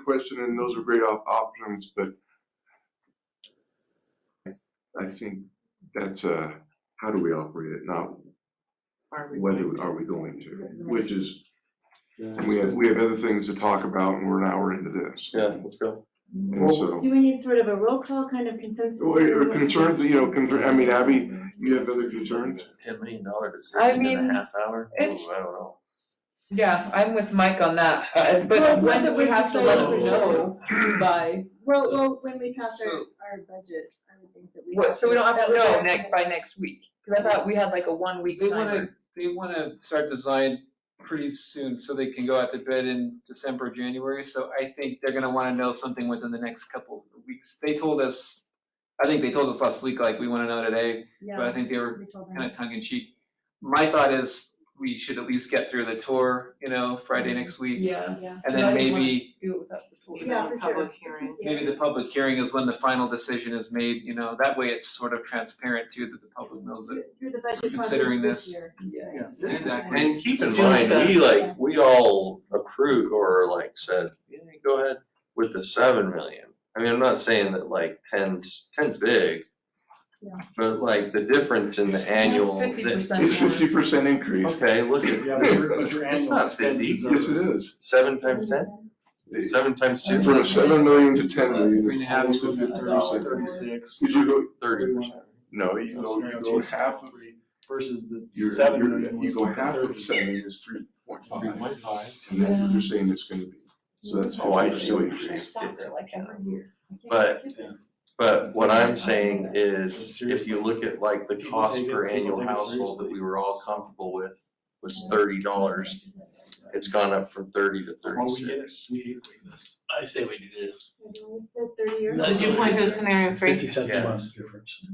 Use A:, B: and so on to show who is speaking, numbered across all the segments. A: question, and those are great op- options, but I- I think that's, uh, how do we operate it, not
B: Are we
A: whether
B: going to-
A: are we going to, which is, and we have, we have other things to talk about, and we're an hour into this.
C: Yeah, let's go.
A: And so,
D: Do we need sort of a roll call kind of consensus?
A: or concerns, you know, concern, I mean, Abby, you have other concerns?
C: Ten million dollar
B: I
C: decision in
B: mean,
C: a half hour? Ooh, I don't
B: it's-
C: know.
B: Yeah, I'm with Mike on that, uh,
D: So
B: but when
D: it's not that
B: do we
D: we
B: have to
D: decide
B: let
C: what
B: them
C: we
B: know by,
D: Well, well, when we pass our,
C: So-
D: our budget, I would think that we.
B: what, so we don't have
D: that
B: to
D: would
B: know
D: be-
B: next, by next week? Cause I thought we had like a one week
E: They
B: timer.
E: wanna, they wanna start design pretty soon, so they can go out to bid in December, January, so I think they're gonna wanna know something within the next couple of weeks. They told us, I think they told us last week, like, we wanna know today, but I
D: Yeah,
E: think they were
D: we told them.
E: kinda tongue in cheek. My thought is, we should at least get through the tour, you know, Friday next week,
B: Yeah.
D: Yeah.
E: and
B: I
E: then
B: didn't wanna
E: maybe,
B: Do it without the tool.
D: Yeah, for sure.
B: Public hearing.
D: Yeah.
E: maybe the public hearing is when the final decision is made, you know, that way it's sort of transparent too, that the public knows it.
D: Through through the budget process
E: considering
D: this
E: this.
D: year.
B: Yeah.
D: Yes.
E: Exactly.
C: And keep in
B: June
C: mind, we
B: fifth.
C: like, we all accrued or like said, yeah, go ahead with the seven million. I mean, I'm not saying that like ten's, ten's big.
D: Yeah.
C: But like the difference in the annual. that-
B: Fifty percent
A: It's fifty percent increase,
C: Okay, look at.
F: Yeah, but your, but your
C: It's
F: annual
C: not
F: expenses are.
A: yes, it is.
C: Seven times ten? Seven times two?
A: From seven million to ten million,
E: Three and a
A: it's
E: half,
A: almost a fifty percent.
F: Thirty-six.
A: Did you go,
C: Thirty percent.
A: no, you go, you go half of,
F: Versus the
A: you're,
F: seven
A: you're,
F: million
A: you
F: was
A: go
F: like
A: half of
F: thirty.
A: seven is three point five.
C: Three point five.
A: And that's what
B: Yeah.
A: you're saying it's gonna be, so that's.
C: Oh, I
A: 50%
C: see what you're
A: increase.
C: saying.
D: But.
C: But what I'm saying is, if you look at like the cost per annual household that we were all comfortable with was thirty dollars, it's gone up from thirty to
F: Why we get it,
C: thirty-six.
F: we hate doing this.
G: I say we do this.
D: Thirty years.
G: As you
B: point to scenario three.
F: Fifty cent
C: Yeah.
F: months difference.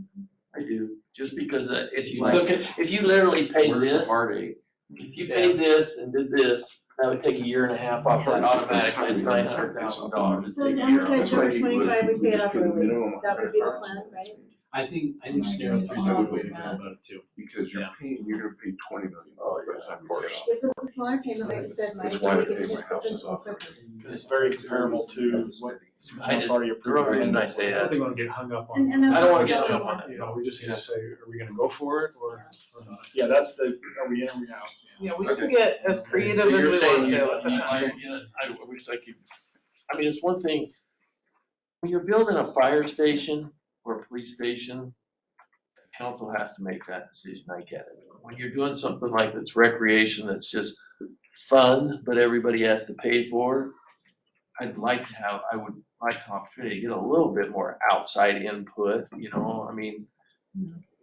G: I do, just because uh, if you
C: Like-
G: look at, if you literally paid
C: Where's the
G: this,
C: heartache?
G: if you paid this and did this, that would take a year and a half off that automatically, it's nine hundred thousand dollars.
D: So it's
A: That's
D: amortized
A: why
D: over
A: you
D: twenty-five,
A: would-
D: we pay it
A: just
D: off
A: put a
D: early.
A: minimum on
D: That would be the
A: 100,000.
D: plan, right?
F: I think, I think scenario three is a good way to go about it too.
A: Because you're
F: Yeah.
A: paying, you're gonna pay twenty million
C: Oh,
A: dollars by
C: yeah,
A: the time
C: of
A: you pay
C: course.
A: it off.
D: This is a smaller payment, like you said, Mike.
A: That's why I
D: we
A: pay
D: can
A: my
D: just put
A: houses
D: them all
A: off.
D: quicker.
F: It's very comparable to what city
G: I just-
F: council already
G: the only
F: approved.
G: reason I say
F: I don't
G: that
F: think
G: is-
F: we'll get hung up
D: And-
F: on.
D: and that's
G: I don't wanna
D: what
G: get
D: we
G: hung
D: don't
G: up on it.
F: You know, we just need to say, are we gonna go for it or, or not? Yeah, that's the, are we in or we out?
B: Yeah, we
C: can
B: get
F: as creative
C: But you're saying you-
G: Yeah, I, yeah, I wish I could, I mean, it's one thing, when you're building a fire station or a police station, the council has to make that decision, I get it. When you're doing something like that's recreation, that's just fun, but everybody has to pay for, I'd like to have, I would like the opportunity to get a little bit more outside input, you know, I mean,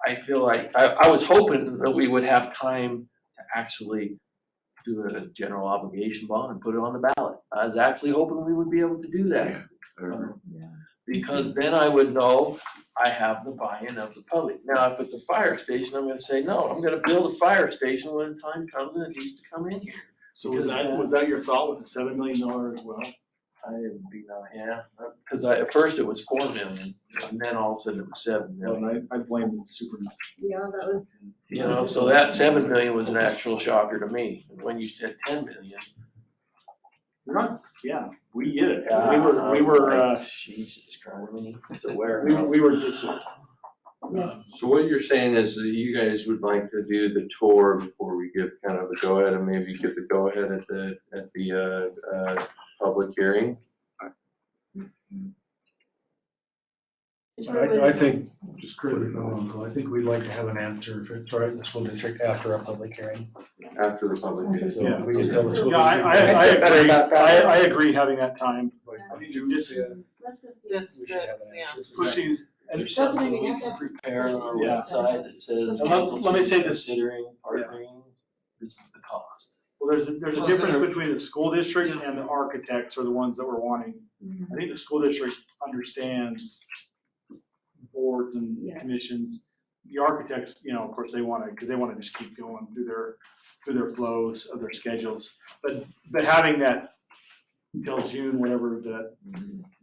G: I feel like, I, I was hoping that we would have time to actually do a general obligation bond and put it on the ballot. I was actually hoping we would be able to do
A: Yeah.
G: that,
A: Or-
G: because then I would know I have the buy-in of the public. Now, if it's a fire station, I'm gonna say, no, I'm gonna build a fire station when the time comes and it needs to come in here.
F: So was that, was that your thought with the seven million dollar as well?
G: I would be not, yeah, because I, at first it was four million, and then all of a sudden it was seven million.
F: And I, I blame the super.
D: Yeah, that was.
G: You know, so that seven million was an actual shocker to me. And When you said ten million,
F: You're not, yeah, we get it.
G: yeah,
F: We
G: I
F: were, we
G: was
F: were,
G: like,
F: uh,
G: Jesus Christ, it's a warehouse.
F: we, were- we were just,
D: Yes.
C: So what you're saying is that you guys would like to do the tour before we give kind of a go-ahead and maybe give the go-ahead at the, at the, uh, uh, public hearing?
F: I, I think, just critically, I think we'd like to have an answer for, for the school district after our public hearing.
C: After the public hearing?
F: So we can
C: Okay.
F: tell the school
E: Yeah, I, I,
F: district-
E: I
G: feel better
E: agree,
G: about that.
E: I, I agree having that time, like,
D: Yeah.
F: We do get to
D: Let's go see.
B: That's,
F: we should have
B: that's,
F: an
B: yeah.
F: answer.
G: Pushing-
F: And
G: There's
D: That's what I
G: something we
D: mean, I
G: can
D: thought-
G: prepare on our
F: Yeah.
G: website that says.
F: And let- let me say this.
G: Considering
F: Yeah.
G: partnering, this is the cost.
F: Well, there's, a- there's a
B: Well,
F: difference
B: there-
F: between the school district and the architects are the ones that we're wanting. I think the school district understands boards and
D: Yes.
F: commissions. The architects, you know, of course, they wanna, because they wanna just keep going through their, through their flows of their schedules. But, but having that till June, whatever, the,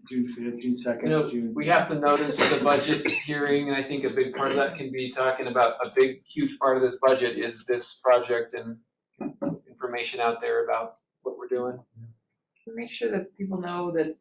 F: June fifth, June
E: You
F: second,
E: know,
F: June.
E: we have to notice the budget hearing, and I think a big part of that can be talking about, a big, huge part of this budget is this project and information out there about what we're doing.
B: Make sure that people know that